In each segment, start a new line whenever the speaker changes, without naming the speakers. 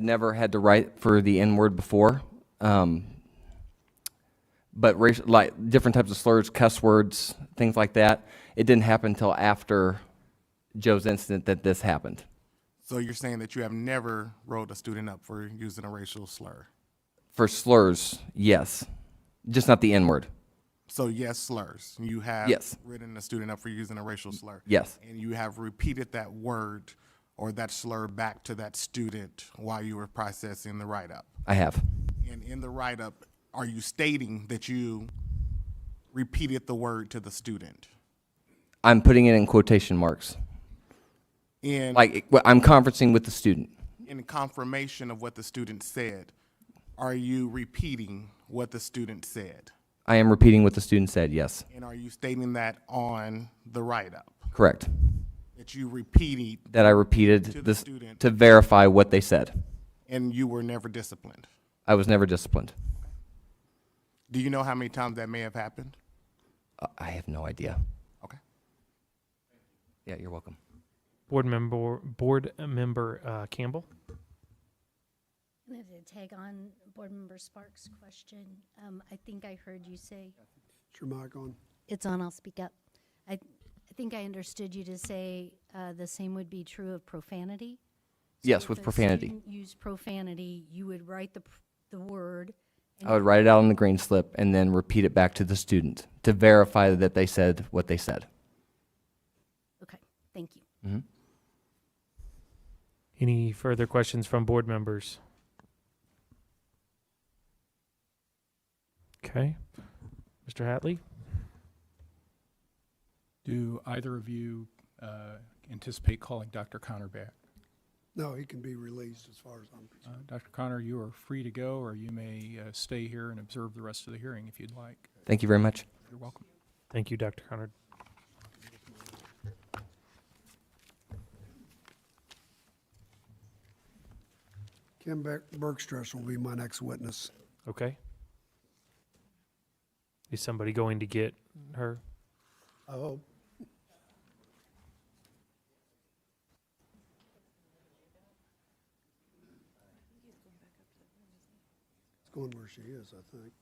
never had to write for the N word before. Um, but racial, like different types of slurs, cuss words, things like that. It didn't happen until after Joe's incident that this happened.
So you're saying that you have never rolled a student up for using a racial slur?
For slurs, yes, just not the N word.
So yes, slurs. You have
Yes.
written a student up for using a racial slur.
Yes.
And you have repeated that word or that slur back to that student while you were processing the write-up.
I have.
And in the write-up, are you stating that you repeated the word to the student?
I'm putting it in quotation marks.
In
Like well, I'm conferencing with the student.
in confirmation of what the student said, are you repeating what the student said?
I am repeating what the student said. Yes,
And are you stating that on the write-up?
correct.
That you repeated
That I repeated
the
this
student.
to verify what they said.
and you were never disciplined?
I was never disciplined.
Do you know how many times that may have happened?
Uh, I have no idea.
Okay.
Yeah, you're welcome.
Board member, board member uh, Campbell.
I'm going to tag on Board Member Sparks' question. Um, I think I heard you say,
Is your mic on?
it's on, I'll speak up. I, I think I understood you to say uh, the same would be true of profanity. So
Yes,
if
with
a
profanity.
student used profanity, you would write the, pr- the word. and
I would write it out on the green slip and then repeat it back to the student to verify that they said what they said.
Okay, thank you.
Any further questions from board members? Okay. Mr. Hatley?
Do either of you uh, anticipate calling Dr. Connor back?
No, he can be released as far as I'm concerned.
Uh, Dr. Connor, you are free to go, or you may uh, stay here and observe the rest of the hearing if you'd like.
Thank you very much.
You're welcome.
Thank you, Dr. Connard.
Kim Beck- Bergstrasser will be my next witness.
Okay. Is somebody going to get her?
I hope. It's going where she is, I think.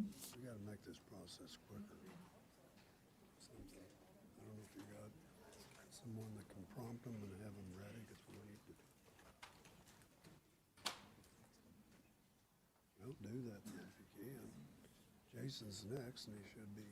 We gotta make this process quicker. I don't know if you got someone that can prompt them and have them ready, 'cause we need to. Don't do that then if you can. Jason's next, and he should be.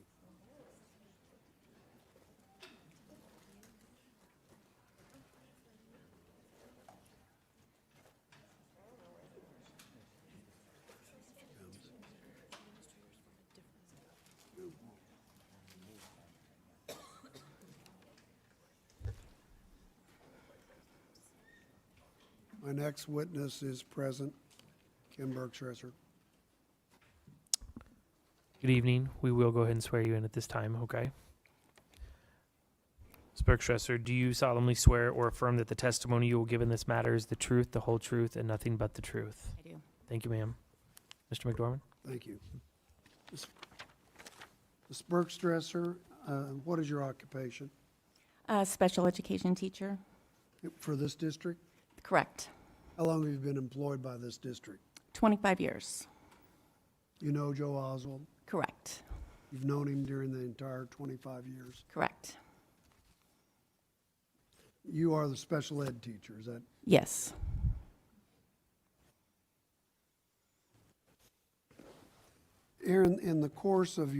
My next witness is present, Kim Bergstresser.
Good evening. We will go ahead and swear you in at this time, okay? Ms. Bergstresser, do you solemnly swear or affirm that the testimony you will give in this matter is the truth, the whole truth, and nothing but the truth?
I do.
Thank you, ma'am. Mr. McDormand?
Thank you. Ms. Ms. Bergstresser, uh, what is your occupation
A special education teacher?
for this district?
Correct.
How long have you been employed by this district?
25 years?
You know Joe Oswald?
Correct.
You've known him during the entire 25 years.
Correct.
You are the special ed teacher, is that?
Yes.
Aaron, in the course of